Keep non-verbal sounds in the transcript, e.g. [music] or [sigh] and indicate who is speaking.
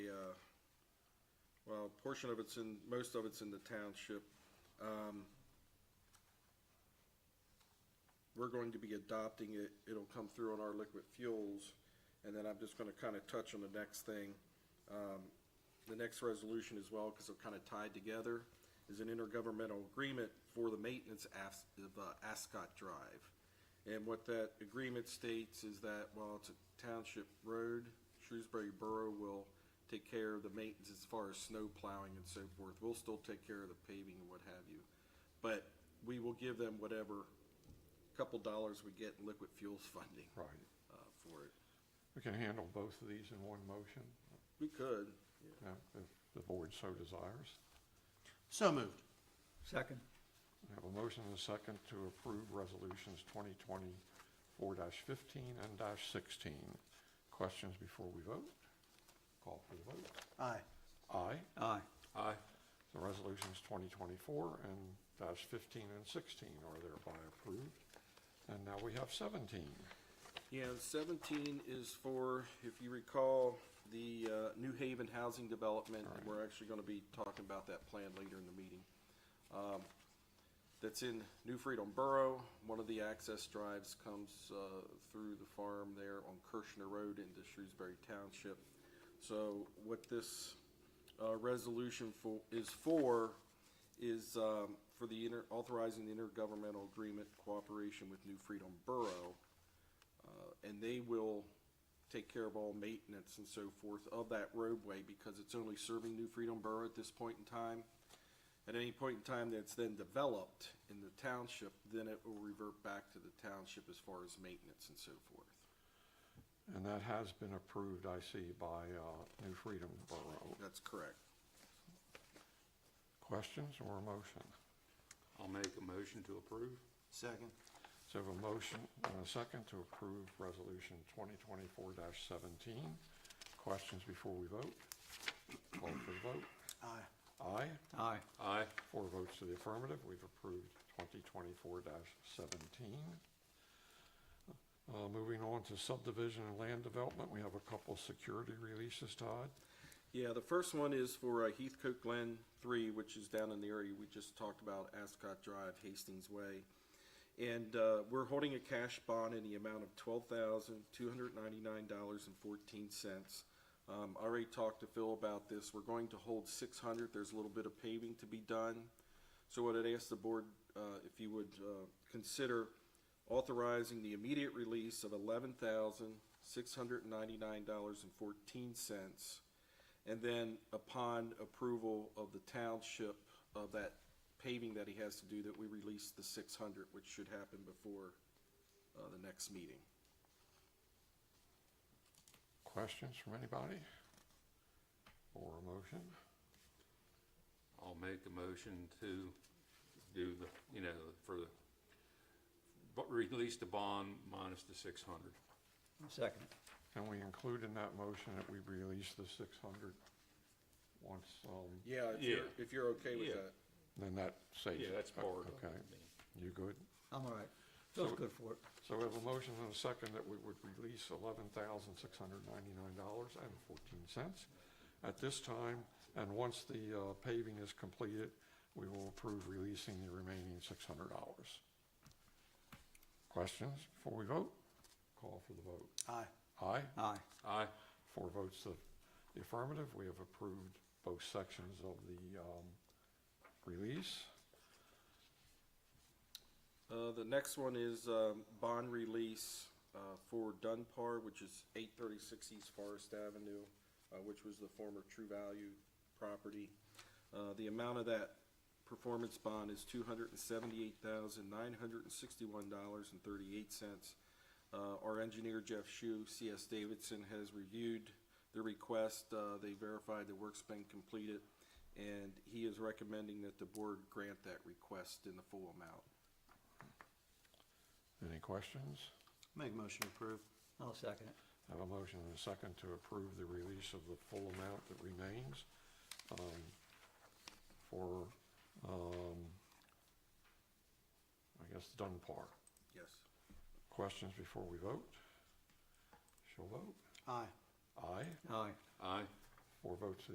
Speaker 1: uh, well, a portion of it's in, most of it's in the township. Um, We're going to be adopting it, it'll come through on our liquid fuels, and then I'm just gonna kinda touch on the next thing. Um, The next resolution as well, because they're kinda tied together, is an intergovernmental agreement for the maintenance as- of uh, Ascot Drive. And what that agreement states is that while it's a township road, Shrewsbury Borough will take care of the maintenance as far as snow plowing and so forth. We'll still take care of the paving and what have you. But we will give them whatever couple dollars we get in liquid fuels [laughs] funding
Speaker 2: Right.
Speaker 1: uh, for it.
Speaker 2: We can handle both of these in one motion,
Speaker 1: We could.
Speaker 2: uh, if the board so desires.
Speaker 3: So moved.
Speaker 4: Second.
Speaker 2: We have a motion and a second to approve resolutions twenty twenty-four fifteen and sixteen. Questions before we vote? Call for the vote.
Speaker 3: Aye.
Speaker 2: Aye.
Speaker 4: Aye.
Speaker 2: Aye. The resolutions twenty twenty-four and dash fifteen and sixteen are thereby approved. And now we have seventeen.
Speaker 1: Yeah, and seventeen is for, if you recall, the uh, New Haven housing development.
Speaker 2: Right.
Speaker 1: We're actually gonna be talking about that plan later in the meeting. Um, That's in New Freedom Borough. One of the access drives comes uh, through the farm there on Kirshner Road into Shrewsbury Township. So what this uh, resolution for, is for, is um, for the inter, authorizing the intergovernmental agreement cooperation with New Freedom Borough. Uh, and they will take care of all maintenance and so forth of that roadway because it's only serving New Freedom Borough at this point in time. At any point in time that's then developed in the township, then it will revert back to the township as far as maintenance and so forth.
Speaker 2: And that has been approved, I see, by uh, New Freedom Borough.
Speaker 1: That's correct.
Speaker 2: Questions or a motion?
Speaker 5: I'll make a motion to approve.
Speaker 3: Second.
Speaker 2: So we have a motion and a second to approve Resolution 2024-17. Questions before we vote? Call for the vote.
Speaker 3: Aye.
Speaker 2: Aye,
Speaker 4: Aye.
Speaker 5: Aye.
Speaker 2: four votes to the affirmative, we've approved 2024-17. Uh, Moving on to subdivision and land development, we have a couple security releases, Todd.
Speaker 1: Yeah, the first one is for uh, Heathcote Glen Three, which is down in the area we just talked about, Ascot Drive, Hastings Way. And uh, we're holding a cash bond in the amount of twelve thousand, two hundred ninety-nine dollars and fourteen cents. Um, I already talked to Phil about this. We're going to hold six hundred. There's a little bit of paving to be done. So what I'd ask the board, uh, if you would, uh, consider authorizing the immediate release of eleven thousand, six hundred ninety-nine dollars and fourteen cents. And then upon approval of the township of that paving that he has to do, that we release the six hundred, which should happen before, uh, the next meeting.
Speaker 2: Questions from anybody? Or a motion?
Speaker 5: I'll make a motion to do the, you know, for the, but release the bond minus the six hundred.
Speaker 4: Second.
Speaker 2: Can we include in that motion that we release the 600 once, um,
Speaker 1: Yeah, if you're,
Speaker 5: Yeah.
Speaker 1: if you're okay with
Speaker 5: Yeah.
Speaker 1: that.
Speaker 2: Then that saves it.
Speaker 5: Yeah, that's
Speaker 2: O-
Speaker 5: part of
Speaker 2: Okay, you good?
Speaker 4: I'm all right.
Speaker 2: So-
Speaker 4: Feels good for it.
Speaker 2: So we have a motion and a second that we would release eleven thousand six hundred ninety-nine dollars and fourteen cents at this time, and once the uh, paving is completed, we will approve releasing the remaining six hundred dollars. Questions before we vote? Call for the vote.
Speaker 3: Aye.
Speaker 2: Aye?
Speaker 4: Aye.
Speaker 5: Aye.
Speaker 2: Four votes of the affirmative, we have approved both sections of the um, release.
Speaker 1: Uh, the next one is, um, bond release, uh, for Dunbar, which is eight thirty-six East Forest Avenue, uh, which was the former True Value property. Uh, the amount of that performance bond is two hundred and seventy-eight thousand, nine hundred and sixty-one dollars and thirty-eight cents. Uh, our engineer Jeff Shu, CS Davidson, has reviewed the request. Uh, they verified the work's been completed, and he is recommending that the board grant that request in the full amount.
Speaker 2: Any questions?
Speaker 3: Make a motion to approve.
Speaker 4: I'll second it.
Speaker 2: I Have a motion and a second to approve the release of the full amount that remains um, for, um, I guess, Dunbar.
Speaker 1: Yes.
Speaker 2: Questions before we vote? Shall vote?
Speaker 3: Aye.
Speaker 2: Aye.
Speaker 4: Aye.
Speaker 5: Aye.
Speaker 2: Four votes to the